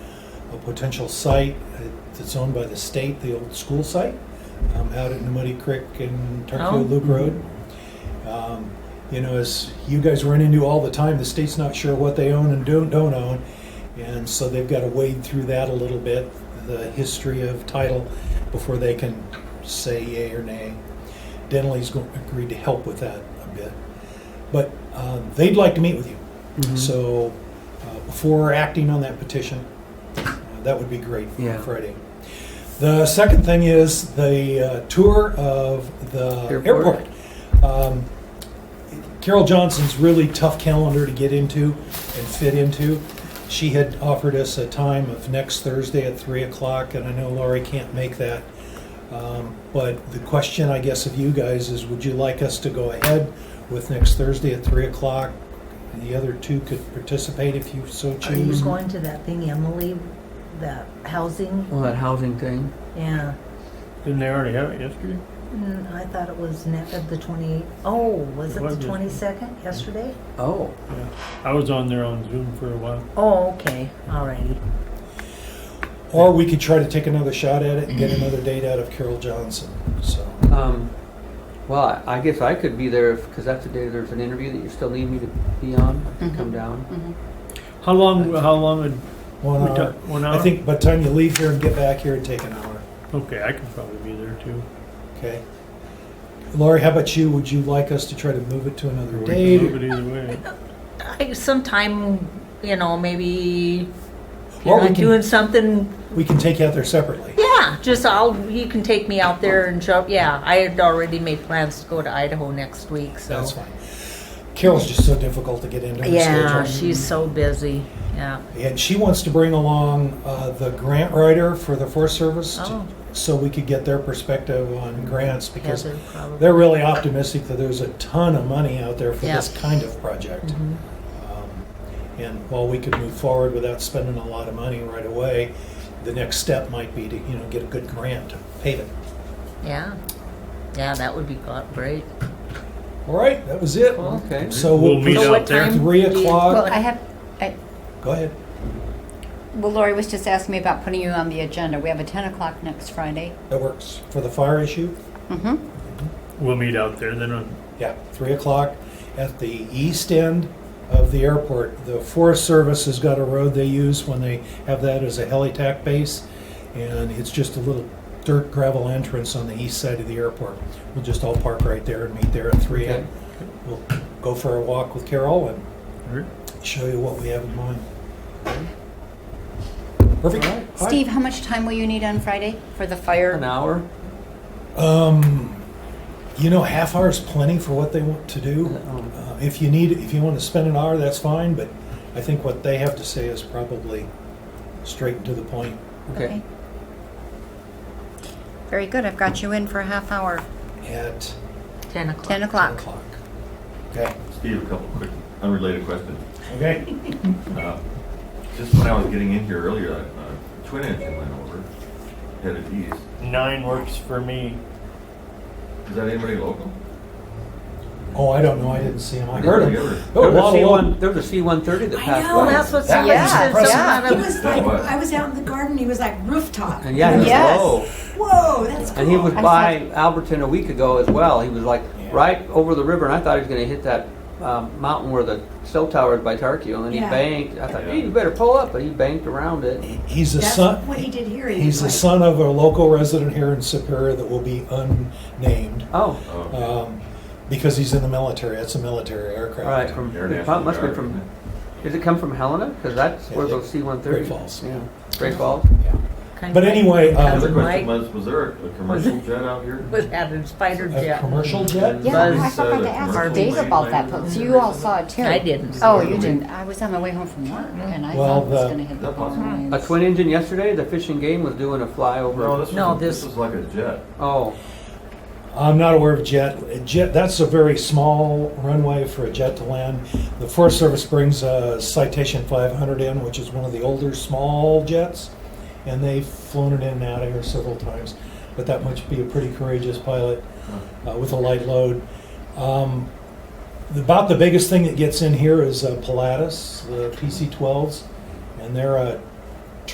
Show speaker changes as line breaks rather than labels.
potential site that's owned by the state, the old school site, um, out at Muddy Creek and
Oh.
Turkfield Loop Road. Um, you know, as you guys run into all the time, the state's not sure what they own and don't, don't own. And so they've got to wade through that a little bit, the history of title, before they can say yay or nay. Denley's go- agreed to help with that a bit. But uh, they'd like to meet with you.
Mm-hmm.
So uh, before acting on that petition, uh, that would be great
Yeah.
on Friday. The second thing is the uh, tour of the
Airport.
airport. Um, Carol Johnson's really tough calendar to get into and fit into. She had offered us a time of next Thursday at 3 o'clock, and I know Laurie can't make that. Um, But the question, I guess, of you guys is, would you like us to go ahead with next Thursday at 3 o'clock? The other two could participate if you so
Are you
choose.
going to that thing, Emily? That housing?
Well, that housing thing.
Yeah.
Didn't they already have it yesterday?
Mm, I thought it was net of the 28. Oh, was it
It was
the
yesterday.
22nd yesterday?
Oh,
Yeah. I was on there on Zoom for a while.
Oh, okay. Alrighty.
Or we could try to take another shot at it and get another date out of Carol Johnson, so.
um, well, I- I guess I could be there because that's the day there's an interview that you still need me to be on. I could come down.
How long? How long would
One
we
hour.
talk? One hour.
I think by the time you leave here and get back here, it'd take an hour.
Okay, I could probably be there too.
Okay. Laurie, how about you? Would you like us to try to move it to another
We
day?
can move it either way.
I, sometime, you know, maybe if
Or
you're
we
not
can-
doing something.
We can take you out there separately.
Yeah, just I'll, you can take me out there and show, yeah, I had already made plans to go to Idaho next week, so.
That's fine. Carol's just so difficult to get into. her
Yeah,
schedule.
she's so busy, yeah.
And she wants to bring along uh, the grant writer for the Forest Service to-
Oh.
so we could get their perspective on grants because
Heather probably.
they're really optimistic that there's a ton of money out there for
Yeah.
this kind of project.
Mm-hmm.
Um, And while we could move forward without spending a lot of money right away, the next step might be to, you know, get a good grant to pave it.
Yeah, yeah, that would be go- great.
All right, that was it.
Cool.
Okay.
So
We'll
we'll
meet
be
So
out
what
there.
time
three
do you-
Well,
o'clock.
I have, I,
Go ahead.
well, Lori was just asking me about putting you on the agenda. We have a 10 o'clock next Friday.
That works for the fire issue.
Mm-hmm.
We'll meet out there then. On,
Yeah, three o'clock at the east end of the airport. The Forest Service has got a road they use when they have that as a helitack base, and it's just a little dirt gravel entrance on the east side of the airport. We'll just all park right there and meet there at three.
Okay.
And we'll go for a walk with Carol and
Alright.
show you what we have in mind. Perfect.
All right.
All right.
Steve, how much time will you need on Friday for the
An
fire?
hour.
Um, you know, half hour is plenty for what they want to do.
Um,
Uh, If you need, if you want to spend an hour, that's fine, but I think what they have to say is probably straight and to the point.
Okay.
Very good. I've got you in for a half hour,
At
Ten o'clock.
10
ten
o'clock.
o'clock. Okay,
Steve, a couple quick unrelated questions.
okay.
Uh, Just when I was getting in here earlier, a twin engine went over, headed east.
Nine works for me.
Is that anybody local?
Oh, I don't know, I didn't see him, I heard him.
There
Oh,
was a
Lalo.
C one. There was a C one thirty that passed
know,
Well,
by.
that's what
That
somebody
was
said.
impressive.
Yeah, he was like,
What?
I was out in the garden, he was like rooftop.
and yeah, he was
Yes.
low.
Whoa, that's cool.
And he was
I
by Alberton a week ago as well. He was like
Yeah.
right over the river, and I thought he was going to hit that um, mountain where the cell tower is by Tarkio, and then he
Yeah.
banked. I thought,
Yeah.
hey, you better pull up, but he banked around it.
He's a
That's
son,
what he did here. He
he's the
was like,
son of a local resident here in Superior that will be unnamed,
Oh,
Oh,
um, because he's in the military, that's a military aircraft.
right. From it
international.
prob- must be from. Does it come from Helena? Because that's where
Yeah.
those C-130s.
Great Falls.
Yeah. Great Falls.
Yeah.
Kind
But
of
anyway,
like
um,
The
Cousin
question
Mike
was, was there a commercial jet out here?
was having spider
A
jet.
commercial jet?
Yeah, I
Buzz,
forgot
uh,
to ask
commercial
Dave
plane
about that,
landing.
but you all saw it too.
I didn't.
Oh, you didn't. I was on my way home from work and I
Well,
thought it was
the-
going to hit the
That possible?
A
phone.
twin engine yesterday. The fishing game was doing a flyover.
No, this
No,
was, this
this-
was like a jet.
oh,
I'm not aware of jet. A Jet, that's a very small runway for a jet to land. The Forest Service brings a Citation 500 in, which is one of the older small jets, and they've flown it in and out of here several times. But that must be a pretty courageous pilot uh, with a light load. Um, about the biggest thing that gets in here is uh, Pilatus, the PC 12s, and they're a